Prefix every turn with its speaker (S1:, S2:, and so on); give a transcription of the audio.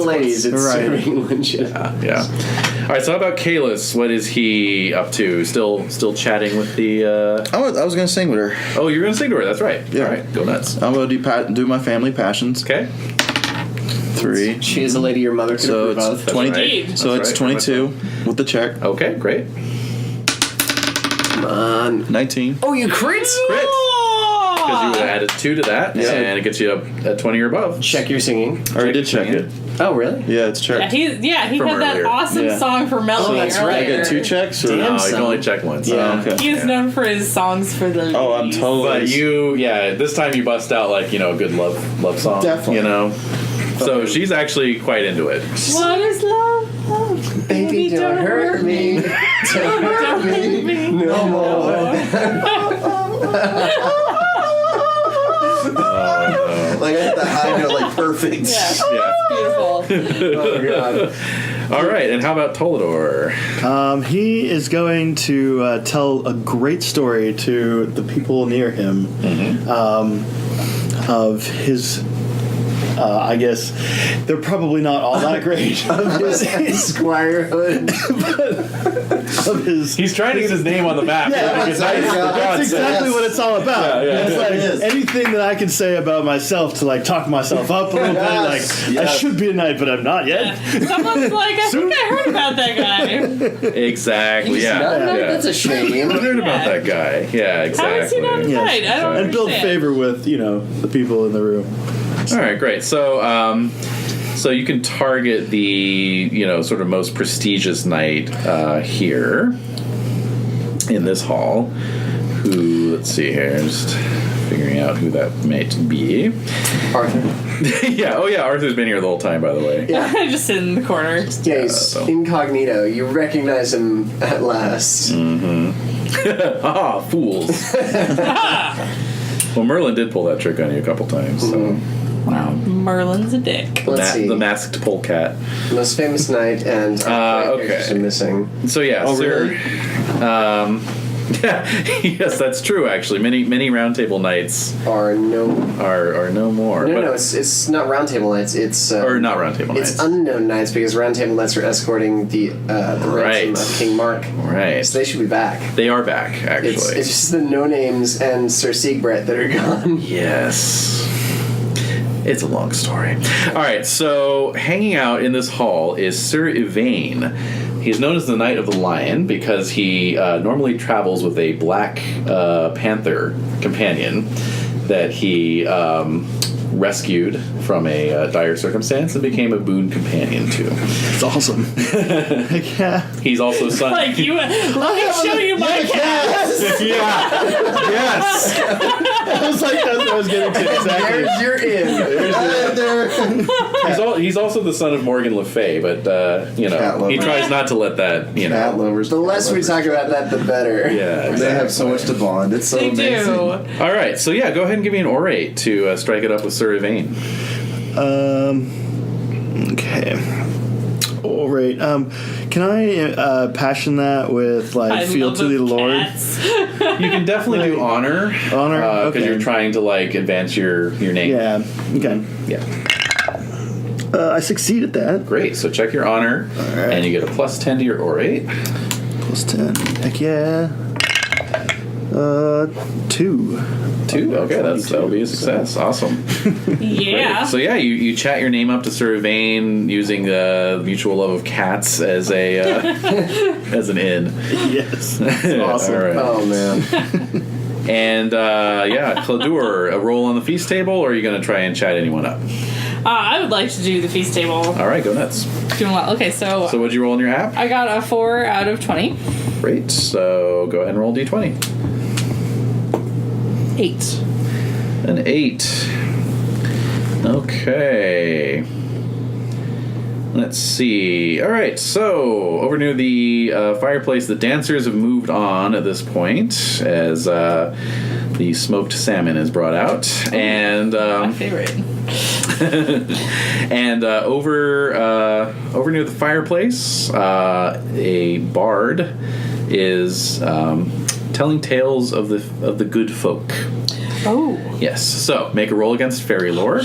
S1: fillets. It's
S2: Right.
S1: serving lunch. Yeah.
S3: Yeah. All right. So how about Kalis? What is he up to? Still, still chatting with the. Uh,
S2: I was, I was gonna sing with her.
S3: oh, you're gonna sing to her. That's right.
S2: Yeah.
S3: All right. Go nuts.
S2: I'm gonna do pa- do my family passions.
S3: Okay.
S2: Three.
S1: She is a lady your mother could
S2: So
S1: approve of.
S2: it's twenty.
S3: right.
S2: So
S3: That's
S2: it's
S3: right.
S2: twenty-two with the check.
S3: Okay. Great.
S1: Come on.
S2: Nineteen.
S1: Oh, you crit?
S3: Crit.
S4: Ah!
S3: Because you would have added two to that,
S2: Yeah.
S3: and it gets you up at twenty or above.
S1: Check your singing.
S2: I already did check
S3: yeah.
S2: it.
S1: Oh, really?
S2: Yeah, it's
S4: Yeah,
S2: checked.
S4: he, yeah, he
S3: From
S4: had that
S3: earlier.
S4: awesome
S2: Yeah.
S4: song for Melody.
S1: Oh, that's
S4: earlier.
S1: right.
S2: I get two checks. Or
S1: Damn.
S3: No, you can only check once. Um,
S1: Yeah.
S2: Oh, okay.
S4: He is known for his songs for the.
S2: Oh, I'm
S4: ladies.
S2: totally.
S3: But you, yeah, this time you bust out like you know a good love love song.
S2: Definitely.
S3: You know. So she's actually quite into it.
S4: What is love? love.
S1: Baby, don't hurt me. Don't hurt me. No more.
S5: Like I hit the high note, like perfect.
S4: Yeah,
S2: Ah!
S3: Yeah.
S4: beautiful.
S1: Oh, God.
S3: All right. And how about Tolador?
S6: Um, he is going to uh, tell a great story to the people near him
S5: Mm-hmm.
S6: um, of his. Uh, I guess they're probably not all that great of his
S1: Squirehood.
S6: of his
S3: He's trying to get his name on the map.
S6: Yeah,
S3: Like, it's not-
S5: exactly.
S3: for
S5: That's
S3: God's
S6: That's
S3: sake.
S6: exactly what it's all about.
S3: Yeah, yeah.
S6: It's like
S5: It is.
S6: anything that I can say about myself to like talk myself up a little
S5: Yes,
S6: bit. Like I
S5: yes.
S6: should be a knight, but I'm not yet.
S4: Someone's like, I think I heard about that guy.
S3: Exactly.
S1: He's
S3: Yeah.
S1: not-
S3: yeah.
S1: That's a
S3: I
S1: shame.
S3: heard about that guy. Yeah,
S4: How is he
S3: exactly.
S4: not right? I don't
S6: And build
S4: understand.
S6: favor with you know the people in the room.
S3: All right, great. So, um, so you can target the you know sort of most prestigious knight uh, here in this hall. Who? Let's see here. Just figuring out who that might be.
S1: Arthur.
S3: yeah. Oh, yeah. Arthur's been here the whole time, by the way.
S1: Yeah.
S4: Just sit in the corner.
S1: Yeah, he's
S3: so-
S1: incognito. You recognize him at last.
S3: Ah, fools. well, Merlin did pull that trick on you a couple times. So. Wow.
S4: Merlin's a dick.
S1: Mm-hmm. Let's
S3: Ma-
S1: see.
S3: the masked polecat.
S1: Most famous knight and
S3: Uh,
S1: my
S3: okay.
S1: characters are missing.
S3: So yeah,
S2: Oh,
S3: sir.
S2: really?
S3: Um, yes, that's true. Actually, many many roundtable nights
S1: Are no
S3: are are no more.
S1: no
S3: but-
S1: no. It's it's not roundtable knights. It's uh,
S3: or not roundtable
S1: It's
S3: nights.
S1: unknown knights because roundtable knights are escorting the uh, the
S3: Right.
S1: ransom of King Mark.
S3: right.
S1: So they should be back.
S3: They are back. Actually,
S1: It's, it's just the no names and Sir Siegbret that are gone.
S3: yes. It's a long story. All right, so hanging out in this hall is Sir Yvain. He's known as the Knight of the Lion because he uh, normally travels with a black uh, panther companion that he um, rescued from a uh, dire circumstance and became a boon companion to.
S6: It's awesome. like, yeah.
S3: He's also son.
S4: Like you, let
S1: Oh,
S4: me show you my cat.
S3: yeah, yes.
S6: I was like that's what I was getting to exactly.
S1: There's your in.
S3: He's, al- he's also the son of Morgan Le Fay, but uh, you know
S5: Cat lover.
S3: he tries not to let that you know.
S5: Cat lovers.
S1: The less we talk about that, the better.
S3: Yeah.
S5: They have so much to bond. It's so
S4: They
S5: amazing.
S4: do.
S3: All right. So yeah, go ahead and give me an orate to uh, strike it up with Sir Yvain.
S6: Um. Okay. All right. Um, can I uh, passion that with like
S4: I
S6: feel
S4: love
S6: to the Lord?
S4: cats.
S3: You can definitely do honor,
S6: Honor?
S3: because
S6: Okay.
S3: you're trying to like advance your your name.
S6: Yeah. Okay.
S3: Yeah.
S6: Uh, I succeed at that.
S3: Great. So check your honor,
S6: right.
S3: and you get a plus ten to your orate.
S6: Plus ten. Heck yeah. Uh, two.
S3: Two.
S6: Oh,
S3: Okay, that's that'll be a success. Awesome.
S4: yeah.
S3: So yeah, you, you chat your name up to Sir Yvain using the mutual love of cats as a uh, as an in.
S6: Yes. That's awesome. Uh,
S3: All right.
S1: Oh man.
S3: And uh, yeah, Cladur, a roll on the feast table, or are you going to try and chat anyone up?
S4: Uh, I would like to do the feast table.
S3: All right, go nuts.
S4: Doing well. Okay, so,
S3: So what'd you roll in your app?
S4: I got a four out of twenty.
S3: Great. So go ahead and roll d20.
S4: Eight.
S3: An eight. Okay. Let's see. All right, so over near the uh, fireplace, the dancers have moved on at this point as uh, the smoked salmon is brought out, and
S4: My
S3: um,
S4: favorite.
S3: and uh, over uh, over near the fireplace, uh, a bard is um, telling tales of the of the good folk.
S4: Oh.
S3: Yes. So make a roll against fairy lore.